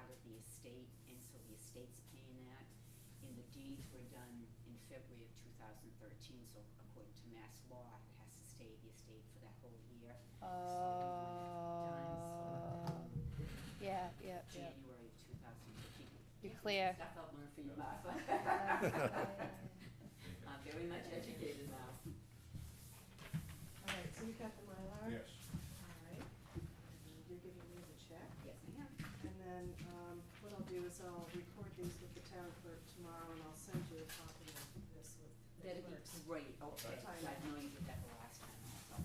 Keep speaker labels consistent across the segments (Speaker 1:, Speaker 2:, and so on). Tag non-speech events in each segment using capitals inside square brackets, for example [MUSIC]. Speaker 1: estate, and so the estate's paying that. And the deeds were done in February of two thousand thirteen, so according to mass law, it has to stay the estate for that whole year.
Speaker 2: Uh,
Speaker 1: So we went
Speaker 2: Oh,
Speaker 1: times,
Speaker 2: yeah, yeah, yeah.
Speaker 1: January of two thousand fifteen.
Speaker 2: You're
Speaker 3: [LAUGHS]
Speaker 2: clear.
Speaker 1: Stuff I've learned from you, [LAUGHS] Martha.
Speaker 2: yeah,
Speaker 1: I'm very much educated now.
Speaker 4: All right, so you got the Mylar?
Speaker 5: Yes.
Speaker 4: All right, and you're giving me the check.
Speaker 1: Yes, I am.
Speaker 4: And then, um, what I'll do is I'll record these with the town clerk tomorrow, and I'll send you a copy of this with the
Speaker 1: That'd be
Speaker 4: clerks.
Speaker 1: great, okay,
Speaker 4: Okay.
Speaker 1: I know you did that the last time also.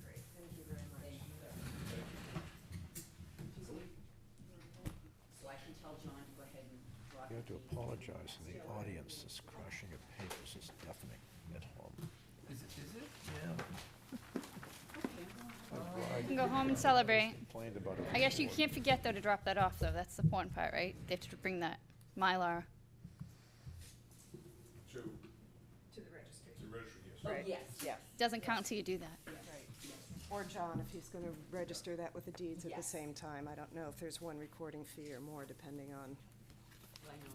Speaker 4: Great, thank you very much.
Speaker 1: Thank you. So I can tell John to go ahead and drop the
Speaker 6: You have to
Speaker 1: deed.
Speaker 6: apologize to the audience, this crushing of papers is deafening at home.
Speaker 3: Is it, is it?
Speaker 1: Okay, I'm going to-
Speaker 2: You can go home and celebrate.
Speaker 6: Complained about it
Speaker 2: I guess you
Speaker 6: before.
Speaker 2: can't forget though to drop that off though. That's the important part, right? They have to bring that Mylar.
Speaker 5: To,
Speaker 4: To the registry.
Speaker 5: to register, yes.
Speaker 1: Oh, yes, yes,
Speaker 2: Doesn't count till you do that.
Speaker 4: Or John, if he's gonna register that with the deeds at the
Speaker 1: Yes.
Speaker 4: same time. I don't know if there's one recording fee or more, depending
Speaker 1: Well, I know
Speaker 4: on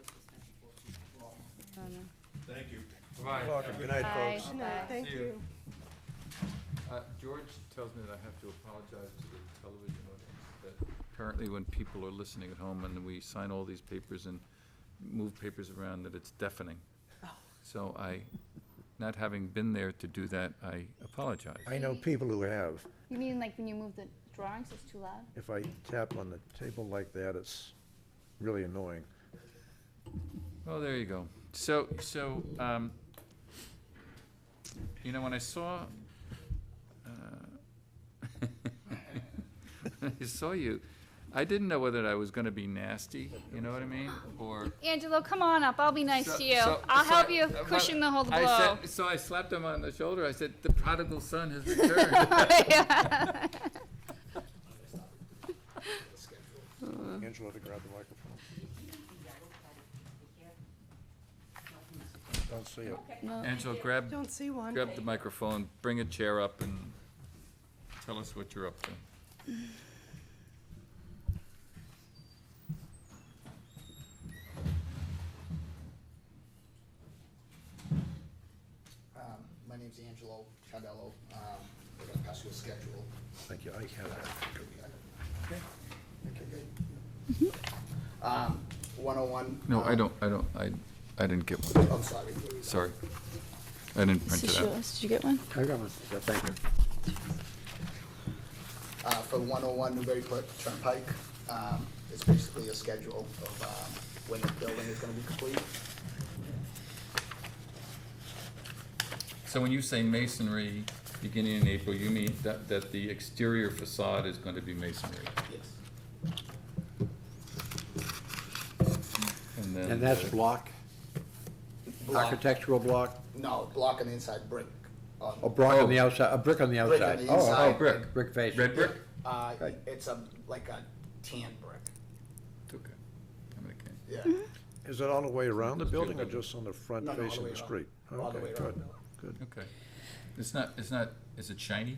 Speaker 1: it's just meant for people.
Speaker 2: Oh, no.
Speaker 5: Thank you.
Speaker 6: Welcome. Good night,
Speaker 2: Bye.
Speaker 6: folks.
Speaker 2: No,
Speaker 4: thank
Speaker 3: See you.
Speaker 4: you.
Speaker 3: Uh, George tells me that I have to apologize to the television audience, that apparently when people are listening at home and we sign all these papers and move papers around, that it's deafening. So I, not having been there to do that, I apologize.
Speaker 6: I know people who have.
Speaker 2: You mean like when you move the drawings, it's too loud?
Speaker 6: If I tap on the table like that, it's really annoying.
Speaker 3: Well, there you go. So, so, um, you know, when I saw, uh, [LAUGHS] when I saw you, I didn't know whether I was gonna be nasty, you know what I mean, or.
Speaker 2: Angelo, come on up. I'll be nice
Speaker 3: So-
Speaker 2: to you.
Speaker 3: so-
Speaker 2: I'll
Speaker 3: so
Speaker 2: help
Speaker 3: I-
Speaker 2: you
Speaker 3: uh,
Speaker 2: cushion the whole blow.
Speaker 3: I said- So I slapped him on the shoulder. I said, "The prodigal son has returned." [LAUGHS]
Speaker 2: [LAUGHS]
Speaker 6: Angela, to grab the microphone. Don't see it.
Speaker 3: Angela, grab,
Speaker 4: Don't see one.
Speaker 3: grab the microphone, bring a chair up, and tell us what you're up to.
Speaker 7: Um, My name's Angelo Cardello. Um, We're going to pass you a schedule.
Speaker 6: Thank you. I have that.
Speaker 7: Okay, good. Um, 101.
Speaker 3: No, I
Speaker 7: um,
Speaker 3: don't, I don't, I, I didn't get one.
Speaker 7: Oh, I'm sorry.
Speaker 3: Sorry. I didn't print it out.
Speaker 2: Did you get one?
Speaker 6: I got one. Thank you.
Speaker 7: Uh, For 101 Newbury Port Turnpike, um, it's basically a schedule of um, when the building is going to be complete.
Speaker 3: So when you say masonry beginning in April, you mean that, that the exterior facade is going to be masonry?
Speaker 7: Yes.
Speaker 3: And then.
Speaker 8: And that's
Speaker 3: the-
Speaker 8: block, architectural block,
Speaker 7: No, block on the inside, brick. Uh, on-
Speaker 3: Oh,
Speaker 8: a block on the outside, a brick on the
Speaker 7: Brick on
Speaker 8: outside.
Speaker 7: the
Speaker 8: Oh, oh,
Speaker 7: inside.
Speaker 8: oh, brick, brick facing.
Speaker 3: Red brick?
Speaker 7: Uh,
Speaker 8: Right.
Speaker 7: It's a, like a tan brick.
Speaker 3: Okay. I'm gonna- okay.
Speaker 7: Yeah.
Speaker 6: Is it all the way around the
Speaker 3: Just do
Speaker 6: building or
Speaker 3: that.
Speaker 6: just on the front
Speaker 7: No, no, all the
Speaker 6: facing
Speaker 7: way
Speaker 6: the
Speaker 7: around.
Speaker 6: street?
Speaker 7: All the
Speaker 6: Okay,
Speaker 7: way around the
Speaker 6: good,
Speaker 7: building.
Speaker 6: good.
Speaker 3: Okay. It's not, it's not, is it shiny?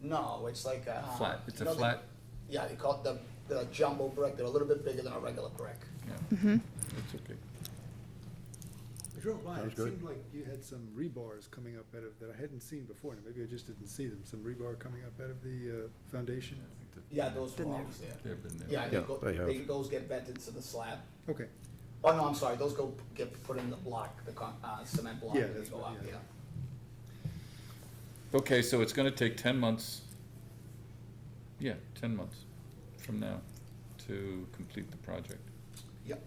Speaker 7: No, it's like a.
Speaker 3: Flat. It's a
Speaker 7: you know the-
Speaker 3: flat-
Speaker 7: Yeah, they call it the, the jumbo brick. They're a little bit bigger than a regular brick.
Speaker 3: Yeah. It's okay.
Speaker 9: I drove by,
Speaker 6: Sounds
Speaker 9: it
Speaker 6: good.
Speaker 9: seemed like you had some rebars coming up out of, that I hadn't seen before, and maybe I just didn't see them, some rebar coming up out of the uh, foundation.
Speaker 3: I think that-
Speaker 7: Yeah, those were
Speaker 4: Been there.
Speaker 7: always there.
Speaker 3: They've been there.
Speaker 7: Yeah,
Speaker 6: Yeah,
Speaker 7: they go,
Speaker 6: they have.
Speaker 7: they, those get vented to the slab.
Speaker 9: Okay,
Speaker 7: Oh, no, I'm sorry, those go, get put in the block, the con, uh, cement block,
Speaker 9: Yeah,
Speaker 7: and they
Speaker 9: that's
Speaker 7: go
Speaker 9: what-
Speaker 7: up,
Speaker 9: yeah.
Speaker 7: yeah.
Speaker 3: Okay, so it's gonna take ten months, yeah, ten months from now to complete the project.
Speaker 7: Yep.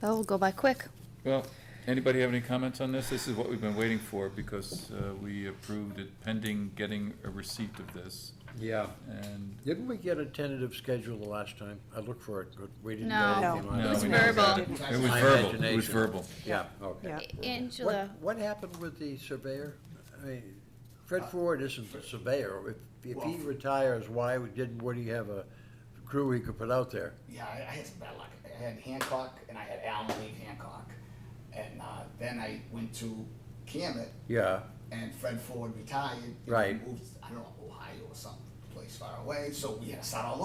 Speaker 2: That will go by quick.
Speaker 3: Well, anybody have any comments on this? This is what we've been waiting for, because uh, we approved it pending getting a receipt of this,
Speaker 8: Yeah.
Speaker 3: and
Speaker 8: Didn't we get a tentative schedule the last time? I looked for it, but we didn't
Speaker 2: No.
Speaker 8: get anything on
Speaker 3: No,
Speaker 8: it.
Speaker 3: It was we
Speaker 2: never verbal.
Speaker 3: it was
Speaker 7: My
Speaker 3: verbal, it was
Speaker 8: imagination.
Speaker 3: verbal.
Speaker 8: Yeah, okay.
Speaker 4: Yeah.
Speaker 8: What,
Speaker 2: Angela,
Speaker 8: what happened with the surveyor? I mean, Fred Ford isn't the surveyor. If, if he
Speaker 7: Well-
Speaker 8: retires, why didn't Woody have a crew he could put out there?
Speaker 7: Yeah, I, I had some bad luck. I had Hancock, and I had Alan Lee Hancock. And, uh, then I went to Camet,
Speaker 8: Yeah,
Speaker 7: and Fred Ford retired. and
Speaker 8: Right.
Speaker 7: Moved, I don't know, Ohio or some place far away, so we had to start all